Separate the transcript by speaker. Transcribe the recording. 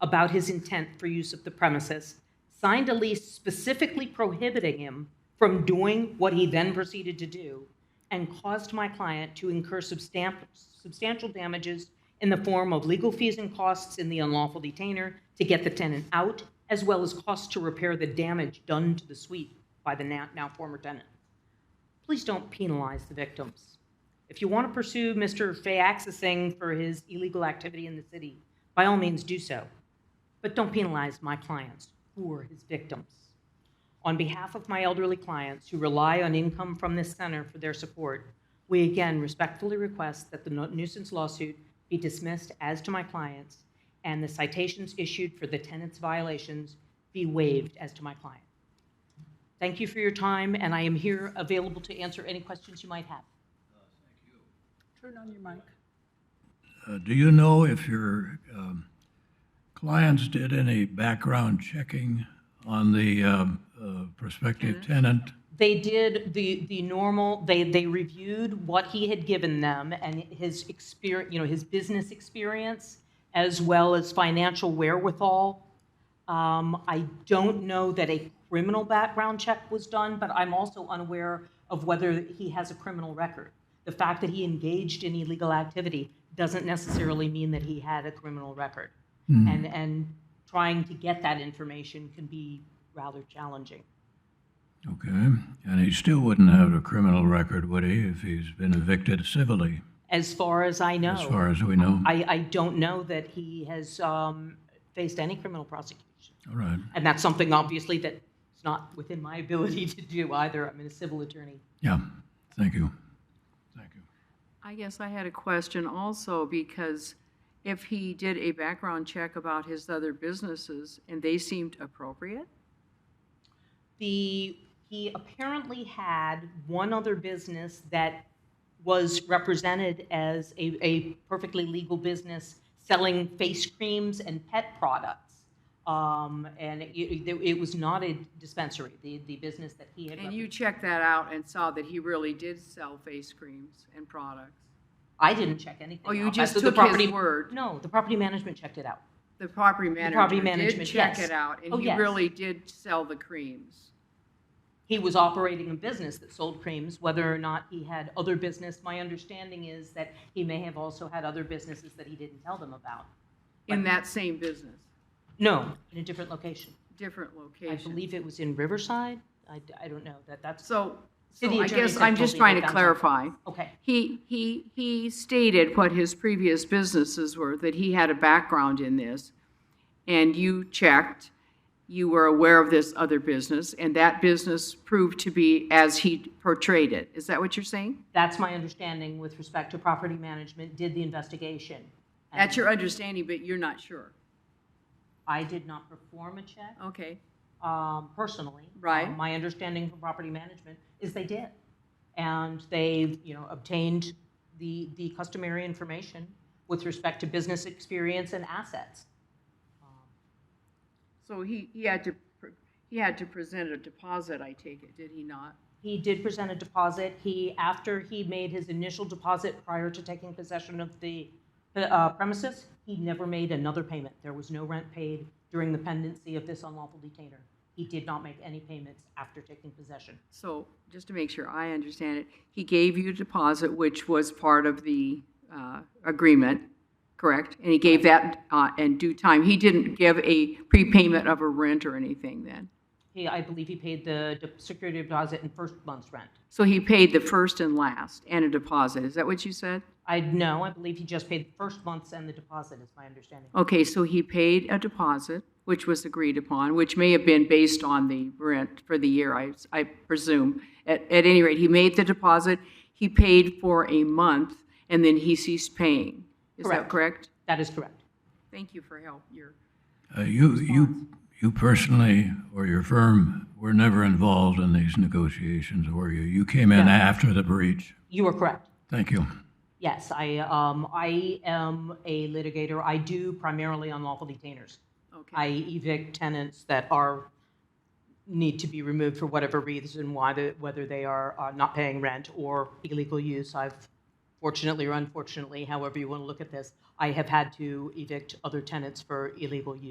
Speaker 1: about his intent for use of the premises, signed a lease specifically prohibiting him from doing what he then proceeded to do, and caused my client to incur substan- substantial damages in the form of legal fees and costs in the unlawful detainer to get the tenant out, as well as costs to repair the damage done to the suite by the now, now former tenant. Please don't penalize the victims. If you want to pursue Mr. Fayaxa Singh for his illegal activity in the city, by all means do so. But don't penalize my clients, who are his victims. On behalf of my elderly clients who rely on income from this center for their support, we again respectfully request that the nu- nuisance lawsuit be dismissed as to my clients and the citations issued for the tenant's violations be waived as to my client. Thank you for your time, and I am here available to answer any questions you might have.
Speaker 2: Turn on your mic.
Speaker 3: Uh, Do you know if your um, clients did any background checking on the um, uh, prospective
Speaker 2: Mm-hmm.
Speaker 3: tenant?
Speaker 1: They did the, the normal, they, they reviewed what he had given them and his experience, you know, his business experience as well as financial wherewithal. Um, I don't know that a criminal background check was done, but I'm also unaware of whether he has a criminal record. The fact that he engaged in illegal activity doesn't necessarily mean that he had a criminal record. And, and trying to get that information can be rather challenging.
Speaker 3: Okay, and he still wouldn't have a criminal record, would he, if he's been evicted civilly,
Speaker 1: As far as I know.
Speaker 3: as far as we know?
Speaker 1: I, I don't know that he has um, faced any criminal prosecution.
Speaker 3: All right,
Speaker 1: And that's something, obviously, that is not within my ability to do either. I'm a civil attorney.
Speaker 3: yeah, thank you. Thank you.
Speaker 2: I guess I had a question also, because if he did a background check about his other businesses and they seemed appropriate,
Speaker 1: The, he apparently had one other business that was represented as a, a perfectly legal business selling face creams and pet products. Um, and it, it, it was not a dispensary, the, the business that he had.
Speaker 2: and you checked that out and saw that he really did sell face creams and products.
Speaker 1: I didn't check anything.
Speaker 2: Oh, you
Speaker 1: out.
Speaker 2: just
Speaker 1: So the
Speaker 2: took his
Speaker 1: property-
Speaker 2: word.
Speaker 1: No, the property management checked it out.
Speaker 2: The property
Speaker 1: property
Speaker 2: manager did
Speaker 1: management,
Speaker 2: check
Speaker 1: yes.
Speaker 2: it out,
Speaker 1: Oh,
Speaker 2: and he
Speaker 1: yes.
Speaker 2: really did sell the creams.
Speaker 1: He was operating a business that sold creams, whether or not he had other business. My understanding is that he may have also had other businesses that he didn't tell them about.
Speaker 2: in that same business,
Speaker 1: No, in a different location.
Speaker 2: different
Speaker 1: I
Speaker 2: location.
Speaker 1: believe it was in Riverside. I, I don't know that that's,
Speaker 2: So, so
Speaker 1: City
Speaker 2: I
Speaker 1: attorney
Speaker 2: guess
Speaker 1: said
Speaker 2: I'm
Speaker 1: told
Speaker 2: just
Speaker 1: me
Speaker 2: trying
Speaker 1: they
Speaker 2: to
Speaker 1: found
Speaker 2: clarify.
Speaker 1: okay.
Speaker 2: He, he, he stated what his previous businesses were, that he had a background in this. And you checked, you were aware of this other business, and that business proved to be as he portrayed it. Is that what you're saying?
Speaker 1: That's my understanding with respect to property management, did the investigation. and
Speaker 2: That's your understanding, but you're not sure.
Speaker 1: I did not perform a check,
Speaker 2: Okay.
Speaker 1: um, personally.
Speaker 2: Right.
Speaker 1: Um, My understanding from property management is they did. And they've, you know, obtained the, the customary information with respect to business experience and assets. Um,
Speaker 2: So he, he had to, pr- he had to present a deposit, I take it, did he not?
Speaker 1: He did present a deposit. He, after he made his initial deposit prior to taking possession of the uh, premises, he never made another payment. There was no rent paid during the pendency of this unlawful detainer. He did not make any payments after taking possession.
Speaker 2: So, just to make sure I understand it, he gave you a deposit, which was part of the uh, agreement, correct? And he gave that uh, in due time. He didn't give a prepayment of a rent or anything then?
Speaker 1: He, I believe he paid the de- security deposit and first month's rent.
Speaker 2: So he paid the first and last and a deposit, is that what you said?
Speaker 1: I know, I believe he just paid the first month's and the deposit, is my understanding.
Speaker 2: Okay, so he paid a deposit, which was agreed upon, which may have been based on the rent for the year, I, I presume. At, at any rate, he made the deposit, he paid for a month, and then he ceased paying. Is that
Speaker 1: Correct.
Speaker 2: correct?
Speaker 1: That is correct.
Speaker 2: Thank you for help. Your
Speaker 3: Uh, You, you, you personally, or your firm, were never involved in these negotiations, were you? You came in
Speaker 1: No.
Speaker 3: after the breach.
Speaker 1: You are correct.
Speaker 3: Thank you.
Speaker 1: Yes, I, um, I am a litigator. I do primarily unlawful detainers.
Speaker 2: okay.
Speaker 1: I evict tenants that are, need to be removed for whatever reason, whether, whether they are uh, not paying rent or illegal use. I've fortunately or unfortunately, however you want to look at this, I have had to evict other tenants for illegal use.